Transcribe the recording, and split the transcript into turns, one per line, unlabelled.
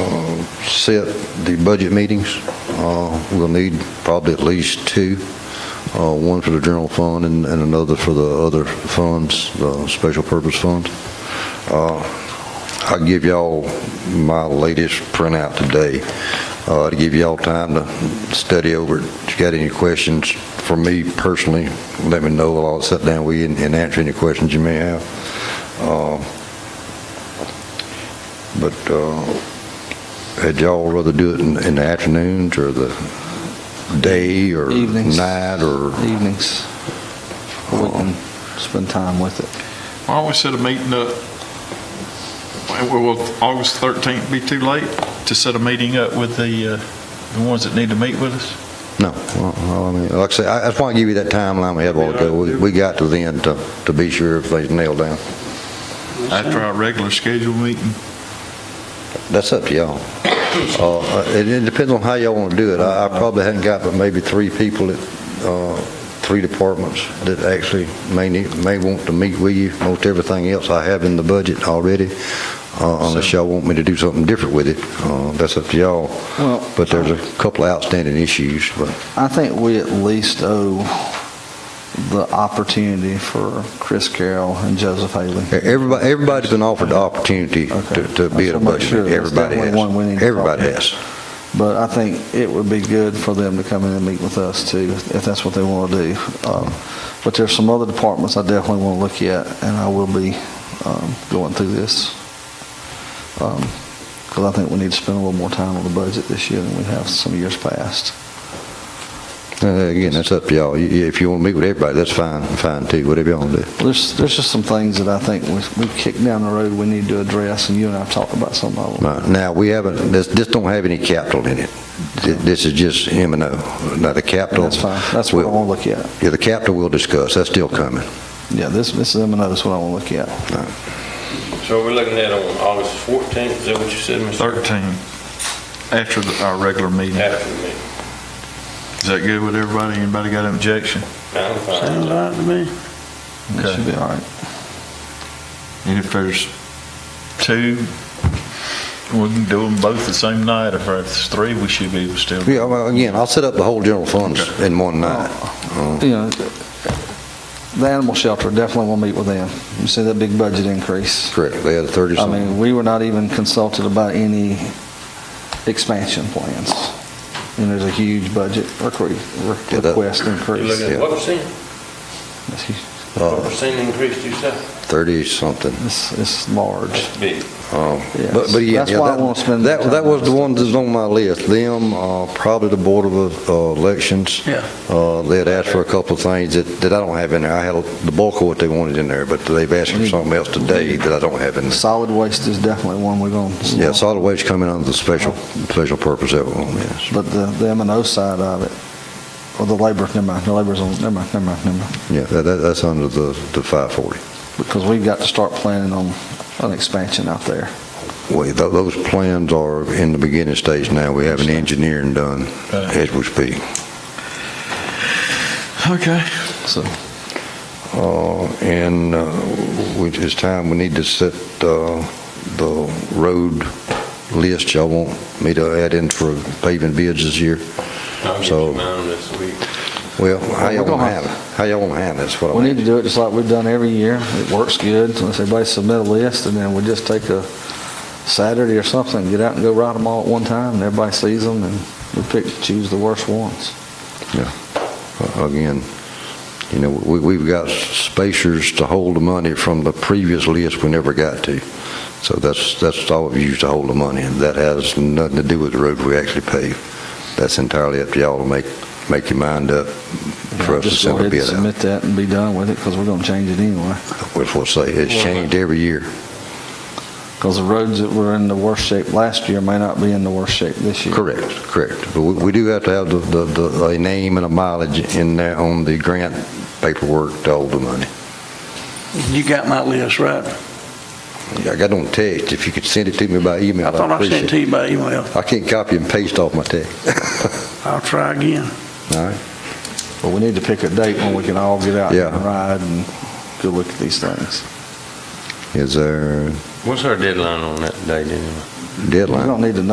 uh, set the budget meetings. Uh, We'll need probably at least two, uh, one for the general fund and and another for the other funds, the special purpose funds. Uh, I'll give y'all my latest printout today, uh, to give y'all time to study over it. If you got any questions for me personally, let me know. I'll sit down with you and- and answer any questions you may have. Uh, But uh, had y'all rather do it in in the afternoons or the day or
Evenings.
night or?
Evenings, we can spend time with it.
Why don't we set a meeting up? Will will August 13th be too late to set a meeting up with the, uh, the ones that need to meet with us?
No, well, well, I mean, like I say, I I just want to give you that timeline we had a while ago. We- We got to the end to, to be sure if they nailed down.
After our regular scheduled meeting?
That's up to y'all. Uh, It it depends on how y'all want to do it. I I probably hadn't got but maybe three people, that, uh, three departments that actually may need, may want to meet with you. Most everything else I have in the budget already, uh, unless y'all want me to do something different with it. Uh, That's up to y'all.
Well-
But there's a couple of outstanding issues, but
I think we at least owe the opportunity for Chris Carroll and Joseph Haley.
Everybody, everybody's been offered the opportunity
Okay.
to, to be at
Just
a
wanna make
budget meeting.
sure. That's
Everybody
definitely one we need
has.
to
Everybody
talk about.
has.
But I think it would be good for them to come in and meet with us too, if that's what they want to do. Um, But there's some other departments I definitely want to look at, and I will be um, going through this. Because I think we need to spend a little more time on the budget this year than we have some years past.
Uh, Again, that's up to y'all. You- you- If you want to meet with everybody, that's fine, fine too, whatever y'all want to do.
There's, there's just some things that I think we- we've kicked down the road we need to address, and you and I have talked about some of them.
Right. Now, we haven't, this, this don't have any capital in it. Th- This is just M and O. Now, the
And
capital.
That's fine, that's what I
we'll-
want to look at.
Yeah, the capital we'll discuss. That's still coming.
Yeah, this, this is M and O is what I want to look at.
So we're looking at on August 14th, is that what you said, Mr.?
13, after the- our regular meeting. Is
After the meeting.
that good with everybody? Anybody got an objection?
I'm fine.
It
Okay.
should be all right.
And if there's two, we can do them both the same night. If there's three, we should be able to still.
Yeah, well, again, I'll set up the whole general funds in one night. Mm.
you know, the animal shelter, definitely will meet with them. You see that big budget increase.
Correct. They had thirty
I
something.
mean, we were not even consulted about any expansion plans. And there's a huge budget recre-
Yeah,
re-
that-
request
You're
increase.
looking at
Yeah.
what percent?
It's hu-
What percent increase do you say?
uh, Thirty something.
It's, it's large.
Big.
Um,
Yes.
But, but yeah.
That's
yeah,
why I
that-
wanna spend
That,
the time
that was
on
the
this.
one that's on my list, them, uh, probably the Board of uh, Elections.
Yeah.
Uh, They had asked for a couple of things that, that I don't have in there. I had the bulk of what they wanted in there, but they've asked
Mm-hmm.
for something else today that I don't have in there.
Solid waste is definitely one we're going to.
Yeah, solid waste coming under the special, special purpose of it, yes.
But the, the M and O side of it, or the labor, never mind, the labor's on, never mind, never mind, never mind.
Yeah, that, that- that's under the, the 540.
Because we've got to start planning on an expansion out there.
Wait, tho- those plans are in the beginning stage now. We have an engineering done
Right.
as we speak.
Okay.
So,
Uh, And uh, which is time, we need to set uh, the road list. Y'all want me to add in for paving bids this year?
I'll get
So-
you mine this week.
Well, how y'all
We're gonna
want to have it? How y'all want to have it? That's what
We
I
need
mean.
to do it just like we've done every year. It works good. So Let's everybody submit a list, and then we just take a Saturday or something, get out and go write them all at one time, and everybody sees them, and we pick, choose the worst ones.
Uh, Again, you know, we, we've got spacers to hold the money from the previous list we never got to. So that's, that's all we've used to hold the money, and that has nothing to do with the road we actually pave. That's entirely up to y'all to make, make your mind up for us to
Just go
send a
ahead and
bid out.
submit that and be done with it, because we're gonna change it anyway.
Which we'll say, it's changed every year.
Because the roads that were in the worst shape last year may not be in the worst shape this year.
Correct, correct. But we we do have to have the, the- the, a name and a mileage in there on the grant paperwork to hold the money.
You got my list, right?
I got on text, if you could send it to me by email,
I
I
thought I sent it
appreciate
to
it.
you by email.
I can't copy and paste off my text,
I'll try again.
all right?
But we need to pick a date when we can all get out
Yeah.
and ride and go look at these things.
Is there
What's our deadline on that date anyway?
a deadline?
We don't need to know